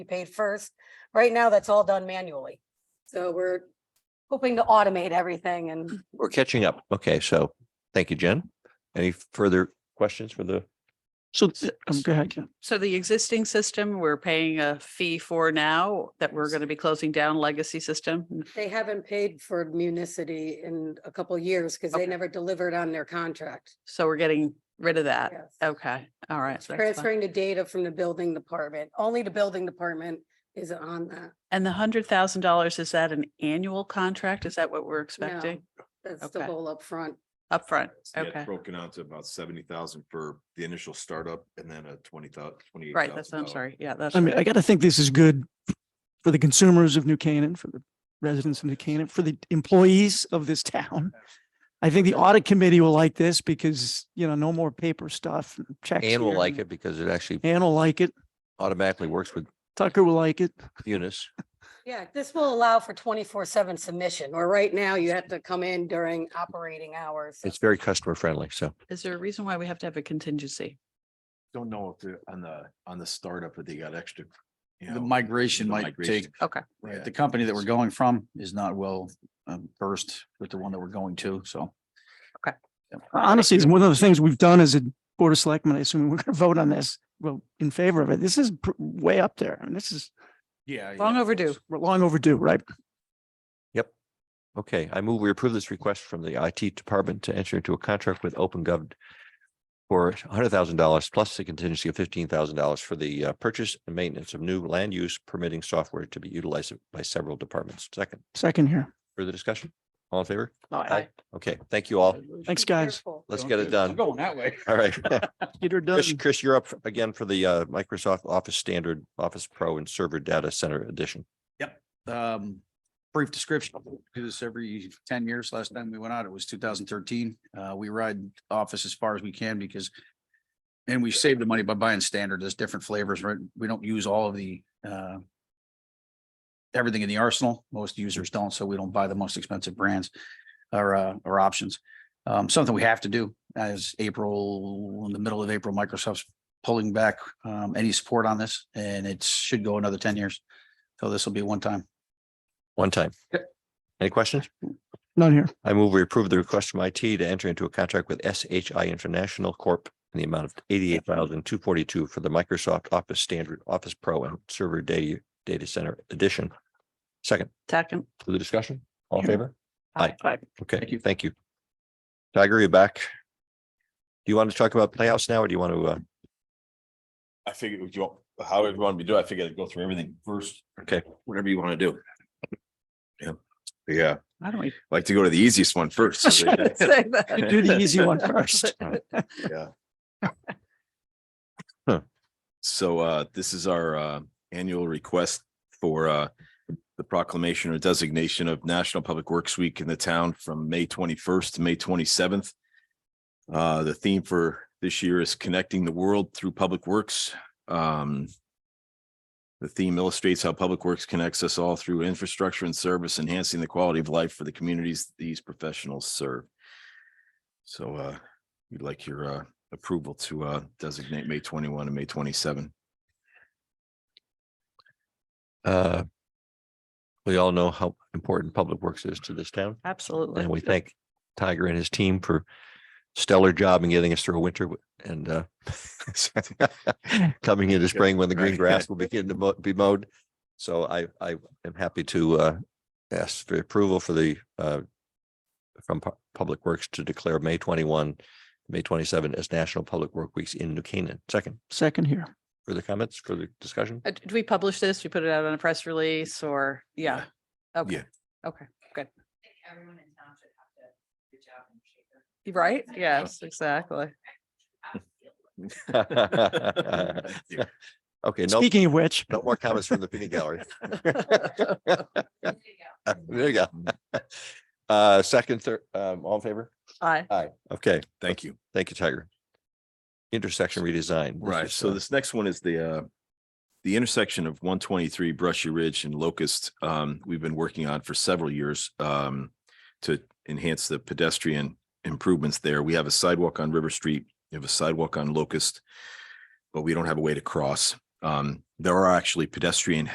be paid first. Right now, that's all done manually. So we're hoping to automate everything and We're catching up. Okay, so thank you, Jen. Any further questions for the? So, th- um, go ahead, Ken. So the existing system we're paying a fee for now that we're going to be closing down legacy system. they haven't paid for municity in a couple of years because they Okay. never delivered on their contract. So we're getting rid of Uh, that. Yes. Okay, all right. that's fine. Transferring the data from the building department, only the building department is on that. And the hundred thousand dollars, is that an annual contract? Is that what we're expecting That's the Okay. whole upfront. upfront? Yeah, it's Okay. Broken out to about seventy thousand for the initial startup and then a twenty thousand, twenty-eight thousand. Right, that's, I'm sorry. Yeah, that's. I mean, I right. got to think this is good for the consumers of New Canaan, for the residents of New Canaan, for the employees of this town. I think the audit committee will like this because, you know, no more paper stuff, and checks. Anne will here like and- it because it actually Ann will like it. automatically works with Tucker will like it. Unis. Yeah, this will allow for twenty-four seven submission, where right now you have to come in during operating hours. It's very customer friendly, so. Is there a reason why we have to have a contingency? Don't know if they're on the, on the startup, if they got extra. you The know, migration the might migration. take, Okay. right, Yeah. the company that we're going from is not well um, versed with the one that we're going to, so. Okay. Yeah. Honestly, it's one of the things we've done as a board of selectmen. I assume we're going to vote on this, well, in favor of it. This is pr- way up there. I mean, this is, Yeah. Long yeah, of overdue. course. we're long overdue, right? Okay, I move we approve this request from the IT department to enter into a contract with Open Gov for hundred thousand dollars plus a contingency of fifteen thousand dollars for the uh, purchase and maintenance of new land use permitting software to be utilized by several departments. Second, Second here. further discussion? All in favor? Aye. Okay, thank you all. Thanks, guys. Careful. Let's get it I'm done. Going that way. All right. Peter Chris, Dunn. Chris, you're up again for the uh, Microsoft Office Standard, Office Pro and Server Data Center Edition. um, brief description, do this every ten years. Last time we went out, it was two thousand thirteen. Uh, we ride office as far as we can because and we save the money by buying standard. There's different flavors, right? We don't use all of the uh everything in the arsenal. Most users don't, so we don't buy the most expensive brands or uh or options. Um, something we have to do as April, in the middle of April, Microsoft's pulling back um any support on this and it should go another ten years. So this will be one time. One time. Any questions? None here. I move we approve the request from IT to enter into a contract with SHI International Corp. in the amount of eighty-eight thousand two forty-two for the Microsoft Office Standard, Office Pro and Server Data, Data Center Edition. Second, Second. for the discussion, all in Sure. favor? Aye. Aye. Okay, thank you. Tiger, you're back. Do you want to talk about Playhouse now or do you want to, uh, I figured, would you, all- how would you want me to do? it? I figured I'd go through everything first. Okay. Whatever you want to do. Yeah, yeah, Why don't we? like to go to the easiest one first. so they- say that? Do the easy one first. Yeah. Huh. So uh, this is our uh, annual request for uh, the proclamation or designation of National Public Works Week in the town from May twenty-first to May twenty-seventh. Uh, the theme for this year is connecting the world through public works. Um, the theme illustrates how public works connects us all through infrastructure and service, enhancing the quality of life for the communities these professionals serve. So uh, we'd like your uh, approval to uh, designate May twenty-one and May twenty-seven. uh, we all know how important Public Works is to this town. Absolutely. And we thank Tiger and his team for stellar job in getting us through a winter w- and uh coming into spring when the green Right. grass will begin to mo- be mowed. So I, I am happy to uh ask for approval for the uh from Pu- Public Works to declare May twenty-one, May twenty-seven as National Public Work Weeks in New Canaan. Second, Second here. further comments, further discussion? Uh, Did we publish this? We put it out on a press release or, yeah? Okay, okay, good. Right? Yes, exactly. Okay, no, Speaking of which, no more comments from the peanut gallery. There you go. Uh, second, third, um, all in favor? Aye. Aye. Okay, Thank you. thank you, Tiger. Intersection redesign. This Right, is, so uh, this next one is the uh, the intersection of one twenty-three Brushy Ridge and Locust. Um, we've been working on for several years um, to enhance the pedestrian improvements there. We have a sidewalk on River Street, we have a sidewalk on Locust, but we don't have a way to cross. Um, there are actually pedestrian